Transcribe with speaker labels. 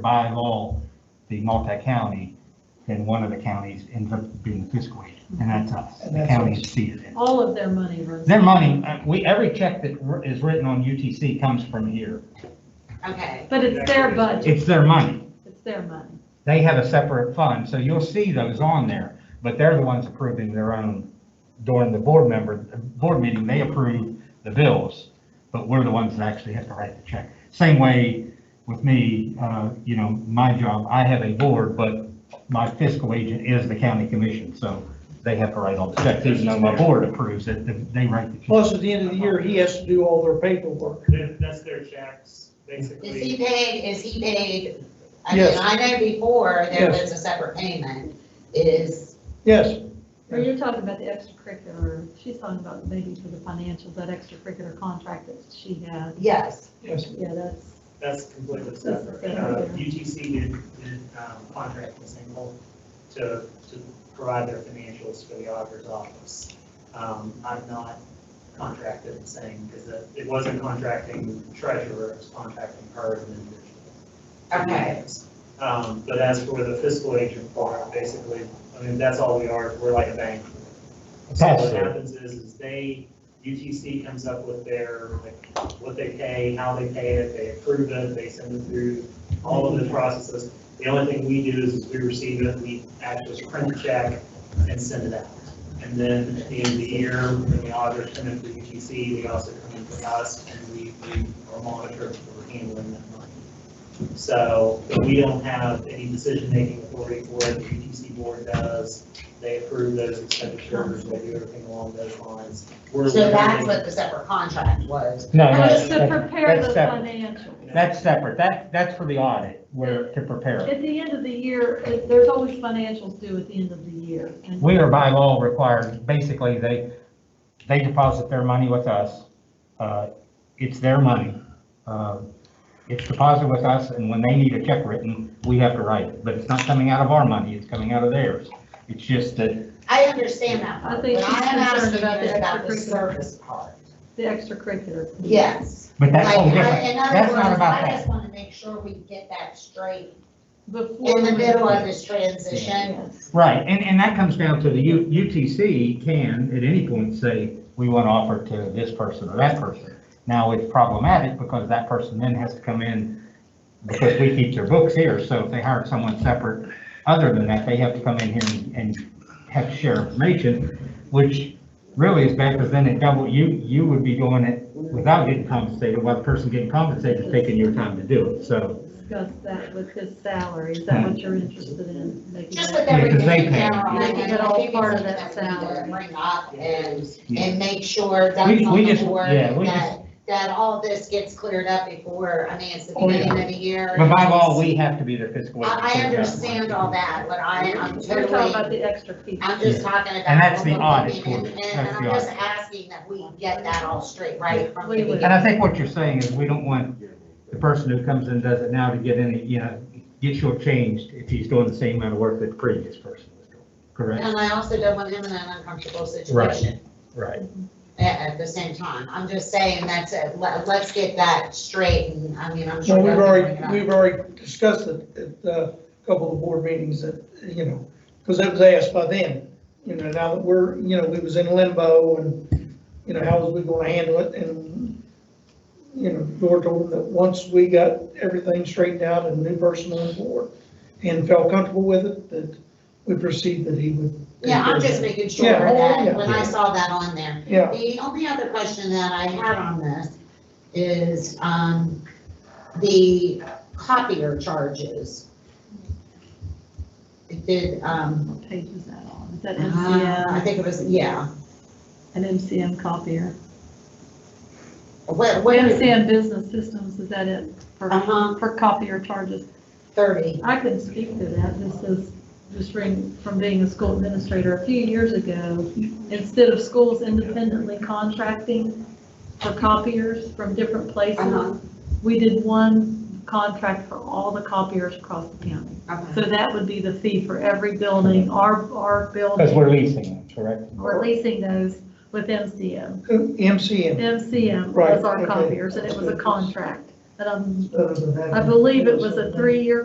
Speaker 1: by law be multi-county, then one of the counties ends up being the fiscal agent, and that's us.
Speaker 2: And
Speaker 1: The
Speaker 2: that's us.
Speaker 1: counties see it.
Speaker 3: All of their money runs.
Speaker 1: Their money, uh, we, every check that wr- is written on UTC comes from here.
Speaker 4: Okay,
Speaker 3: But it's their budget,
Speaker 1: It's their money.
Speaker 3: it's their money.
Speaker 1: They have a separate fund, so you'll see those on there, but they're the ones approving their own, during the board member, board meeting, they approve the bills, but we're the ones that actually have to write the check. Same way with me, uh, you know, my job, I have a board, but my fiscal agent is the county commission, so they have to write all the checks, even though my board approves it, they write the check.
Speaker 2: Plus, at the end of the year, he has to do all their paperwork.
Speaker 5: That, that's their checks,
Speaker 4: is he
Speaker 5: basically.
Speaker 4: paid, is he paid? I mean,
Speaker 2: Yes.
Speaker 4: I know before there
Speaker 2: Yes.
Speaker 4: was a separate payment, is,
Speaker 2: Yes,
Speaker 3: Or you're talking about the extracurricular, she's talking about maybe for the financials, that extracurricular contract that she had.
Speaker 4: yes,
Speaker 2: yes.
Speaker 3: Yeah, that's,
Speaker 5: That's completely
Speaker 3: That's
Speaker 5: separate.
Speaker 3: separate,
Speaker 5: Uh,
Speaker 3: yeah.
Speaker 5: UTC did, did um, contract with Single to, to provide their financials for the auditor's office. Um, I'm not contracted and saying, because it it wasn't contracting treasurer, it was contracting her as an individual.
Speaker 4: Okay.
Speaker 5: Um, But as for the fiscal agent part, basically, I mean, that's all we are, we're like a bank. So what
Speaker 1: Pass-through.
Speaker 5: happens is, is they, UTC comes up with their, like, what they pay, how they pay it, they approve it, they send it through all of the processes. The only thing we do is is we receive it, we actually print the check and send it out. And then at the end of the year, when the auditors come in for UTC, they also come in for us and we, we are monitored for handling that money. So but we don't have any decision-making authority for it, the UTC board does. They approve those expenditures, they do everything along those lines. We're
Speaker 4: so that's
Speaker 5: literally-
Speaker 4: what the separate contract was.
Speaker 1: No, no,
Speaker 3: that's to
Speaker 1: that's-
Speaker 3: prepare
Speaker 1: that's
Speaker 3: the
Speaker 1: separate.
Speaker 3: financials.
Speaker 1: That's separate, that, that's for the audit, where, to prepare it.
Speaker 3: At the end of the year, it- there's always financials due at the end of the year. And
Speaker 1: We are by law required, basically, they, they deposit their money with us. Uh, It's their money. Uh, It's deposited with us, and when they need a check written, we have to write it. But it's not coming out of our money, it's coming out of theirs. It's just that,
Speaker 4: I understand that
Speaker 3: I
Speaker 4: part, but
Speaker 3: think she's
Speaker 4: I'm asking
Speaker 3: concerned
Speaker 4: you
Speaker 3: about the
Speaker 4: about the
Speaker 3: extracurricular.
Speaker 4: service part.
Speaker 3: The extracurricular.
Speaker 4: Yes.
Speaker 1: but that's
Speaker 4: Like,
Speaker 1: all
Speaker 4: I-
Speaker 1: different.
Speaker 4: in other
Speaker 1: That's not
Speaker 4: words,
Speaker 1: about
Speaker 4: I
Speaker 1: that.
Speaker 4: just want to make sure we get that straight
Speaker 3: Before.
Speaker 4: in the
Speaker 3: we-
Speaker 4: middle of this transition.
Speaker 3: Yes.
Speaker 1: Right, and, and that comes down to the U- UTC can at any point say, we want to offer to this person or that person. Now, it's problematic because that person then has to come in, because we keep their books here, so if they hired someone separate, other than that, they have to come in here and- and have to share information, which really is bad, because then it double, you, you would be doing it without getting compensated, while the person getting compensated is taking your time to do it, so.
Speaker 3: Discuss that with his salary. Is that what you're interested in? making
Speaker 4: Just
Speaker 3: that-
Speaker 4: with
Speaker 1: Yeah, 'cause
Speaker 4: everything
Speaker 1: they
Speaker 4: in
Speaker 1: pay.
Speaker 4: general.
Speaker 3: Make it all part of that
Speaker 4: sound.
Speaker 3: salary.
Speaker 4: Bring up and,
Speaker 1: Yeah.
Speaker 4: and make sure that's
Speaker 1: We-
Speaker 4: on
Speaker 1: we
Speaker 4: the
Speaker 1: just-
Speaker 4: board,
Speaker 1: yeah, we
Speaker 4: that, that all this gets cleared up before, I mean, it's the
Speaker 1: Oh, yeah.
Speaker 4: beginning of the year.
Speaker 1: But by law, we have to be their fiscal. agent.
Speaker 4: I, I understand all that, but I, I'm
Speaker 3: We're talking
Speaker 4: totally,
Speaker 3: about the extra piece.
Speaker 4: I'm just talking about.
Speaker 1: And that's the
Speaker 4: what we're
Speaker 1: audit
Speaker 4: looking at,
Speaker 1: for it.
Speaker 4: And
Speaker 1: That's
Speaker 4: I'm
Speaker 1: the
Speaker 4: just
Speaker 1: audit.
Speaker 4: asking that we get that all straight right from the
Speaker 3: We would.
Speaker 4: beginning.
Speaker 1: And I think what you're saying is we don't want the person who comes in and does it now to get any, you know, get shortchanged if he's doing the same amount of work that the previous person was doing. Correct?
Speaker 4: And I also don't want him in an uncomfortable situation.
Speaker 1: Right.
Speaker 4: at, at the same time. I'm just saying that's it. Let, let's get that straight and, I mean, I'm
Speaker 2: So
Speaker 4: sure.
Speaker 2: we've
Speaker 4: they'll
Speaker 2: already,
Speaker 4: bring it
Speaker 2: we've already discussed it at uh, a couple of board meetings that, you know, because it was asked by them. You know, now that we're, you know, we was in limbo and, you know, how was we gonna handle it? And, you know, Dora told them that once we got everything straightened out and new person on board and felt comfortable with it, that we perceived that he would.
Speaker 4: up. Yeah, I'm just making sure
Speaker 2: Yeah, oh, yeah.
Speaker 4: that when I saw that on there.
Speaker 2: Yeah,
Speaker 4: The only other question that I had on this is, um, the copier charges. It did, um,
Speaker 3: What page is that on? Is that
Speaker 4: uh, I
Speaker 3: MCM,
Speaker 4: think it was, yeah,
Speaker 3: an MCM copier?
Speaker 4: what, what is it?
Speaker 3: MCM Business Systems, is that it? For,
Speaker 4: Uh-huh.
Speaker 3: for copier charges?
Speaker 4: Thirty.
Speaker 3: I couldn't speak to that. This is just from, from being a school administrator. A few years ago, instead of schools independently contracting for copiers from different
Speaker 4: Uh-huh.
Speaker 3: places, we did one contract for all the copiers across the county. So
Speaker 4: Okay.
Speaker 3: that would be the fee for every building, our, our
Speaker 1: Because
Speaker 3: building,
Speaker 1: we're leasing them, correct?
Speaker 3: we're leasing those with MCM.
Speaker 2: who- MCM.
Speaker 3: MCM
Speaker 2: Right,
Speaker 3: was our
Speaker 2: okay.
Speaker 3: copiers, and it was a contract. And um,
Speaker 2: uh,
Speaker 3: I believe it was a
Speaker 2: three.
Speaker 3: three-year